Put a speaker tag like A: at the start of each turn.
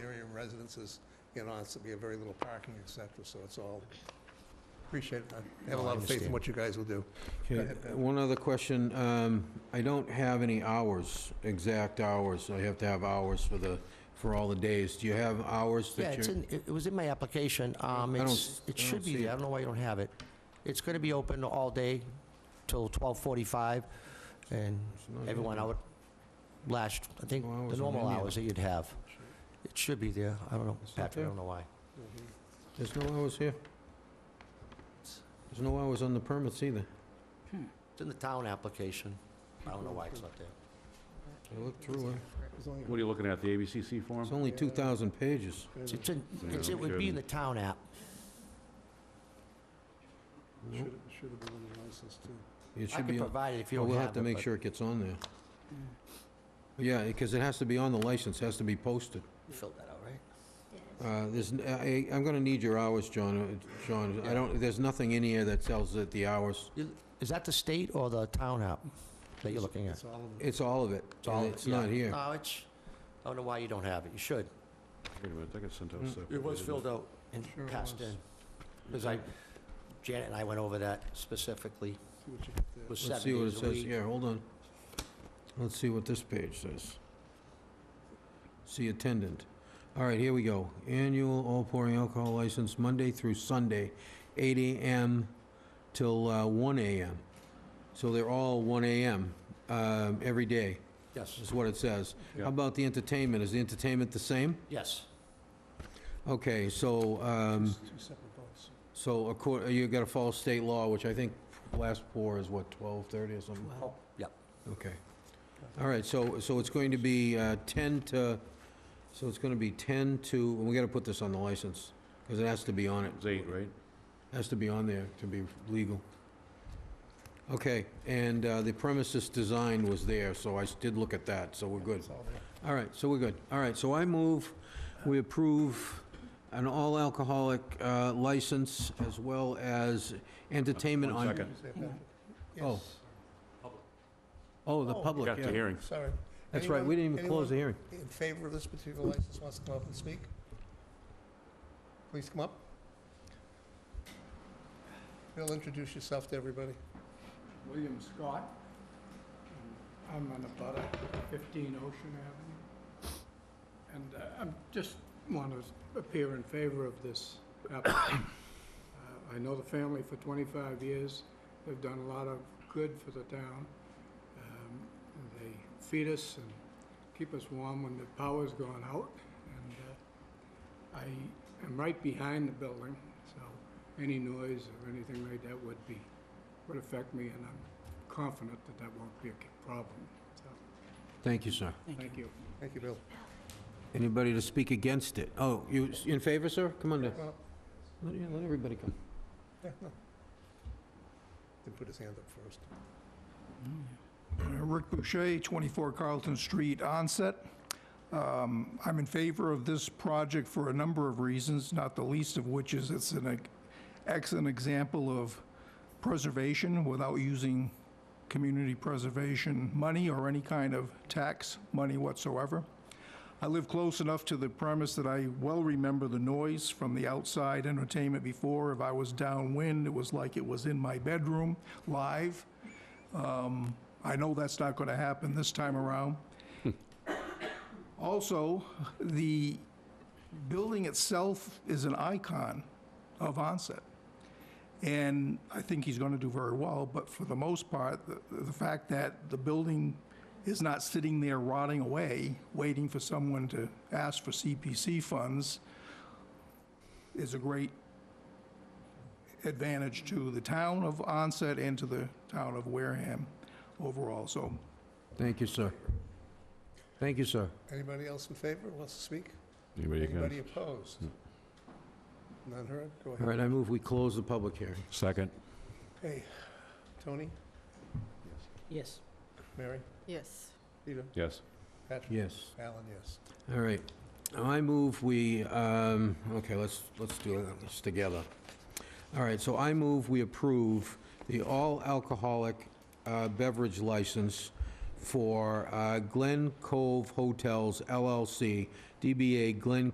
A: residences, you know, it's to be a very little parking, et cetera, so it's all, appreciate it. I have a lot of faith in what you guys will do.
B: Okay,
A: ahead.
B: one other question. Um, I don't have any hours, exact hours. I have to have hours for the, for all the days. Do you have hours
C: Yeah,
B: that
C: it's
B: you're?
C: in, it it was in my application. Um,
B: I don't
C: it's,
B: s-
C: it
B: I
C: should
B: don't
C: be
B: see
C: there. I
B: it.
C: don't know why you don't have it. It's gonna be open all day till twelve forty-five and
B: It's not
C: everyone
B: open.
C: out last, I think,
B: No hours
C: the
B: on
C: normal
B: any of
C: hours that you'd have. It should be there. I don't know,
B: It's not
C: Patrick, I
B: there?
C: don't know why.
B: There's no hours here? There's no hours on the permits either.
C: It's in the town application. I don't know why it's not there.
B: I looked through it.
D: What are you looking at, the ABCC form?
B: It's only 2,000 pages.
C: It's- It's in,
D: Yeah,
C: it's, it would be in the town app.
A: Should should have been on the license, too.
B: It
C: I
B: should
C: can
B: be, on-
C: provide it if you
B: well,
C: don't have it.
B: we'll have to make
C: but-
B: sure it gets on there. Yeah, because it has to be on the license, has to be posted.
C: You filled that out, right?
B: Uh, There's, n- I, am gonna need your hours, John, uh, John. I don't, there's nothing in here that tells it the hours.
C: Is that the state or the town app that you're looking at?
A: It's all of them.
B: It's all of it,
C: all-
B: and it's not
C: yeah.
B: here.
C: No, it's, I don't know why you don't have it, you should.
D: Wait a minute, I got sent out
B: Mm.
D: separately,
C: It was
D: didn't
C: filled out and
A: Sure it
C: passed
A: was.
C: in, because I, Janet and I went over that specifically,
A: See what you get there.
C: It was seven
B: Let's see what it
C: days a
B: says,
C: week.
B: yeah, hold on. Let's see what this page says. See attendant. All right, here we go. Annual all pouring alcohol license, Monday through Sunday, 8 AM till uh, 1 AM. So they're all 1 AM um, every day,
C: Yes,
B: is what it says.
D: Yeah.
B: How about the entertainment? Is the entertainment the same?
C: yes,
B: Okay, so, um,
A: Two separate votes.
B: so accor- you gotta follow state law, which I think last pour is what, 12:30 or something?
A: Wow.
C: yep.
B: Okay. All right, so, so it's going to be uh, 10 to, so it's going to be 10 to, and we got to put this on the license, because it has to be on it.
D: It was eight, right?
B: Has to be on there to be legal. Okay, and uh, the premises design was there, so I s- did look at that, so we're good.
A: It's all there.
B: All right, so we're good. All right, so I move, we approve an all-alcoholic uh, license as well as entertainment
D: One
B: on...
D: second.
A: Is that Patrick?
B: Oh.
A: Yes.
B: Oh, the
A: Oh.
D: You
B: public,
D: got the
B: yeah.
D: hearing.
A: Sorry.
B: That's right, we didn't even close the hearing.
A: in favor of this particular license wants to come up and speak? Please come up. Bill, introduce yourself to everybody.
E: William Scott. I'm on a butter, 15 Ocean Avenue. And uh, I'm just want to appear in favor of this application. Uh, I know the family for 25 years. They've done a lot of good for the town. Um, They feed us and keep us warm when the power's gone out. And uh, I am right behind the building, so any noise or anything like that would be would affect me, and I'm confident that that won't be a problem. So,
B: Thank you, sir.
E: thank you.
A: Thank you, Bill.
B: Anybody to speak against it? Oh, you s- in favor, sir? Come on down.
A: Come on up.
B: Let yeah, let everybody come.
A: Yeah, no. Didn't put his hand up first.
F: Rick Boucher, 24 Carlton Street, Onset. Um, I'm in favor of this project for a number of reasons, not the least of which is it's an ex- excellent example of preservation without using community preservation money or any kind of tax money whatsoever. I live close enough to the premise that I well remember the noise from the outside entertainment before. If I was downwind, it was like it was in my bedroom, live. Um, I know that's not going to happen this time around. Also, the building itself is an icon of Onset. And I think he's going to do very well, but for the most part, the, the fact that the building is not sitting there rotting away, waiting for someone to ask for CPC funds, is a great advantage to the town of Onset and to the town of Wareham overall. So
B: Thank you, sir. Thank you, sir.
A: Anybody else in favor wants to speak?
D: Anybody
A: Anybody
D: against?
A: opposed? None heard? Go
B: All
A: ahead.
B: right, I move we close the public hearing.
D: Second.
A: Hey, Tony,
G: Yes.
A: Mary,
G: Yes.
A: Peter,
D: Yes.
A: Patrick,
B: Yes.
A: Alan, yes.
B: All right. I move we, um, okay, let's, let's do this together. All right, so I move we approve the all-alcoholic uh, beverage license for uh, Glen Cove Hotels LLC, DBA Glen